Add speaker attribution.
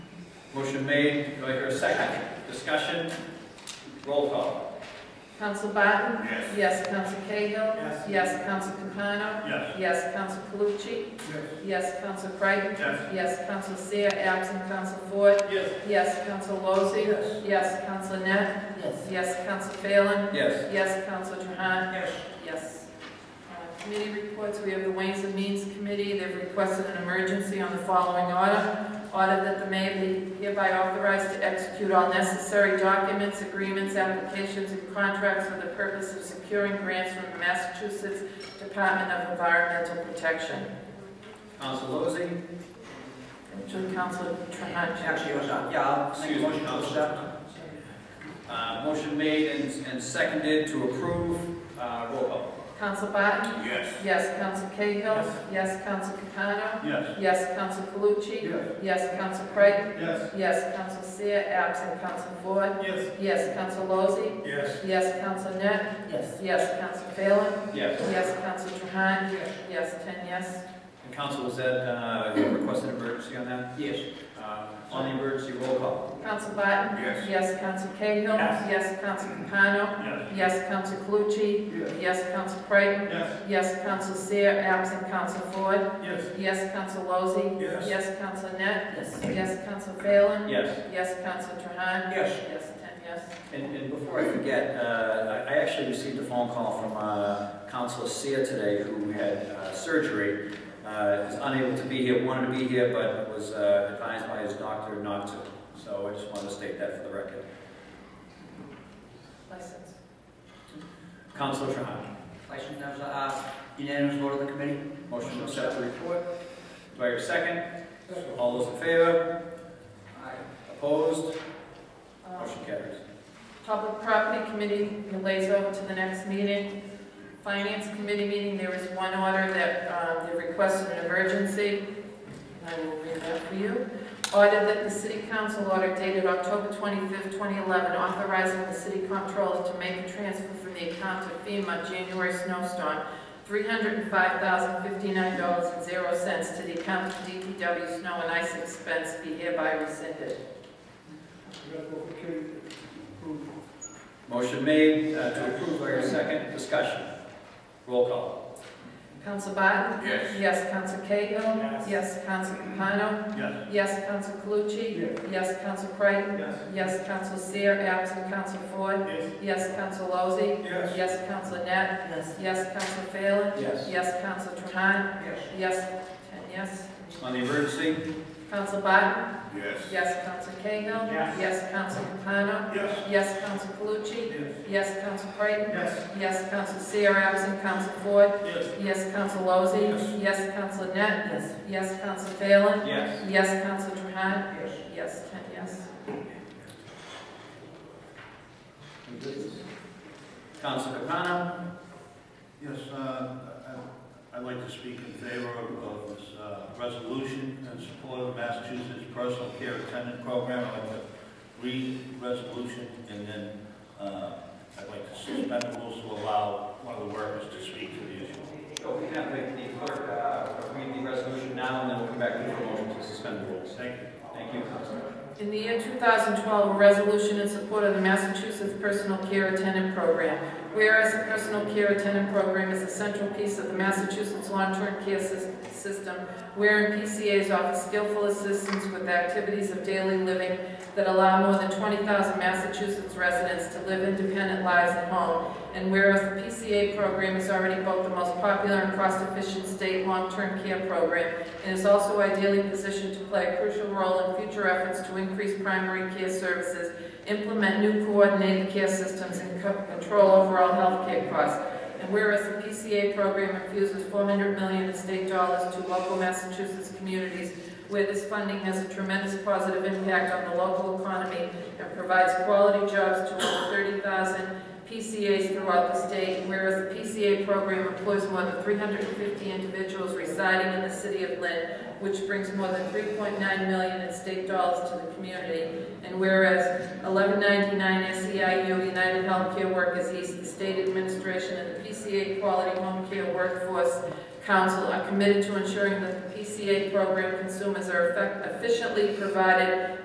Speaker 1: Motion made, do I hear a second? Discussion? Roll call.
Speaker 2: Counsel Barton?
Speaker 3: Yes.
Speaker 2: Yes, Counsel Cahill?
Speaker 3: Yes.
Speaker 2: Yes, Counsel Capano?
Speaker 3: Yes.
Speaker 2: Yes, Counsel Calucci?
Speaker 3: Yes.
Speaker 2: Yes, Counsel Creighton?
Speaker 3: Yes.
Speaker 2: Yes, Counsel Seer, absent Counsel Ford?
Speaker 3: Yes.
Speaker 2: Yes, Counsel Lozey?
Speaker 3: Yes.
Speaker 2: Yes, Counsel Net?
Speaker 3: Yes.
Speaker 2: Yes, Counsel Phelan?
Speaker 1: Yes.
Speaker 2: Yes, Counsel Trahan?
Speaker 3: Yes.
Speaker 2: Yes. Uh, Committee reports, we have the Ways and Means Committee, they've requested an emergency on the following order. Order that the mayor be hereby authorized to execute all necessary documents, agreements, applications, and contracts for the purpose of securing grants from the Massachusetts Department of Environmental Protection.
Speaker 1: Council Lozey?
Speaker 2: To Counsel Trahan.
Speaker 3: Actually, what's up? Yeah, I'll make a
Speaker 1: Excuse me,
Speaker 3: motion to accept.
Speaker 1: Council. Uh, Motion made and and seconded to approve. Uh, Roll call.
Speaker 2: Counsel Barton?
Speaker 3: Yes.
Speaker 2: Yes, Counsel Cahill?
Speaker 3: Yes.
Speaker 2: Yes, Counsel Capano?
Speaker 3: Yes.
Speaker 2: Yes, Counsel Calucci?
Speaker 3: Yes.
Speaker 2: Yes, Counsel Creighton?
Speaker 3: Yes.
Speaker 2: Yes, Counsel Seer, absent Counsel Ford.
Speaker 3: Yes.
Speaker 2: Yes, Counsel Lozey.
Speaker 3: Yes.
Speaker 2: Yes, Counsel Net.
Speaker 3: Yes.
Speaker 2: Yes, Counsel Phelan.
Speaker 1: Yes.
Speaker 2: Yes, Counsel Trahan. Yes, ten yes.
Speaker 1: And Council, was that, uh, you requested emergency on that?
Speaker 3: Yes.
Speaker 1: Uh, On the emergency, roll call.
Speaker 2: Counsel Barton.
Speaker 3: Yes.
Speaker 2: Yes, Counsel Cahill.
Speaker 3: Yes.
Speaker 2: Council Counsel Capano.
Speaker 3: Yes.
Speaker 2: Yes, Counsel Calucci.
Speaker 3: Yes.
Speaker 2: Yes, Counsel Creighton.
Speaker 3: Yes.
Speaker 2: Yes, Counsel Seer, absent Counsel Ford.
Speaker 3: Yes.
Speaker 2: Yes, Counsel Lozey.
Speaker 3: Yes.
Speaker 2: Yes, Counsel Net. Yes, Counsel Phelan.
Speaker 1: Yes.
Speaker 2: Yes, Counsel Trahan.
Speaker 3: Yes.
Speaker 2: Yes, ten yes.
Speaker 1: And and before I forget, uh, I I actually received a phone call from uh, Council Seer today, who had uh, surgery, uh, is unable to be here, wanted to be here, but was uh, advised by his doctor not to. So I just wanted to state that for the record.
Speaker 2: License.
Speaker 1: Council Trahan,
Speaker 3: Question, that was a uh, unanimous vote of the committee?
Speaker 1: motion to accept the report. Do I hear a second? All those in favor?
Speaker 3: Aye.
Speaker 1: Opposed?
Speaker 2: Um,
Speaker 1: Motion carries.
Speaker 2: Public Property Committee relays over to the next meeting. Finance Committee meeting, there was one order that uh, they requested an emergency. I will read that for you. Order that the City Council order dated October 25th, 2011, authorizing the City Comptroller to make a transfer from the account to FEMA January snowstorm, $305,059.00 to the account of DPW snow and ice expense be hereby rescinded.
Speaker 1: Motion made uh, to approve, do I hear a second? Discussion. Roll call.
Speaker 2: Counsel Barton?
Speaker 3: Yes.
Speaker 2: Yes, Counsel Cahill. Yes, Counsel Capano.
Speaker 3: Yes.
Speaker 2: Yes, Counsel Calucci. Yes, Counsel Creighton.
Speaker 3: Yes.
Speaker 2: Yes, Counsel Seer, absent Counsel Ford.
Speaker 3: Yes.
Speaker 2: Yes, Counsel Lozey.
Speaker 3: Yes.
Speaker 2: Yes, Counsel Net.
Speaker 3: Yes.
Speaker 2: Yes, Counsel Phelan.
Speaker 1: Yes.
Speaker 2: Yes, Counsel Trahan.
Speaker 3: Yes.
Speaker 2: Yes, ten yes.
Speaker 1: On the emergency?
Speaker 2: Counsel Barton.
Speaker 3: Yes.
Speaker 2: Yes, Counsel Cahill.
Speaker 3: Yes.
Speaker 2: Yes, Counsel Capano.
Speaker 3: Yes.
Speaker 2: Yes, Counsel Calucci.
Speaker 3: Yes.
Speaker 2: Yes, Counsel Creighton.
Speaker 3: Yes.
Speaker 2: Yes, Counsel Seer, absent Counsel Ford.
Speaker 3: Yes.
Speaker 2: Yes, Counsel Lozey. Yes, Counsel Net. Yes. Yes, Counsel Phelan.
Speaker 1: Yes.
Speaker 2: Yes, Counsel Trahan.
Speaker 3: Yes.
Speaker 2: Yes, ten yes.
Speaker 1: Counsel Capano?
Speaker 4: Yes, uh, I- I'd like to speak in favor of of this uh, resolution in support of Massachusetts Personal Care Attendant Program. I'd like to read the resolution, and then uh, I'd like to suspend the rules to allow one of the workers to speak to the issue.
Speaker 1: So Oh, we have the the clerk uh, read the resolution now, and then we'll come back to the motion to suspend the rules.
Speaker 4: Thank you.
Speaker 1: Thank you, Counsel.
Speaker 2: In the year 2012, a resolution in support of the Massachusetts Personal Care Attendant Program. Whereas the Personal Care Attendant Program is a central piece of the Massachusetts long-term care sys- system, wherein PCAs offer skillful assistance with activities of daily living that allow more than 20,000 Massachusetts residents to live independent lives at home. And whereas the PCA program is already both the most popular and cost-efficient state long-term care program, and is also ideally positioned to play a crucial role in future efforts to increase primary care services, implement new coordinated care systems, and co- control overall healthcare costs. And whereas the PCA program infuses 400 million in state dollars to local Massachusetts communities, where this funding has a tremendous positive impact on the local economy and provides quality jobs to over 30,000 PCAs throughout the state, whereas the PCA program employs more than 350 individuals residing in the city of Lynn, which brings more than 3.9 million in state dollars to the community, and whereas 1199 SEIU E United Healthcare Workers East, the state administration, and the PCA Quality Home Care Workforce Council are committed to ensuring that the PCA program consumers are effect- efficiently provided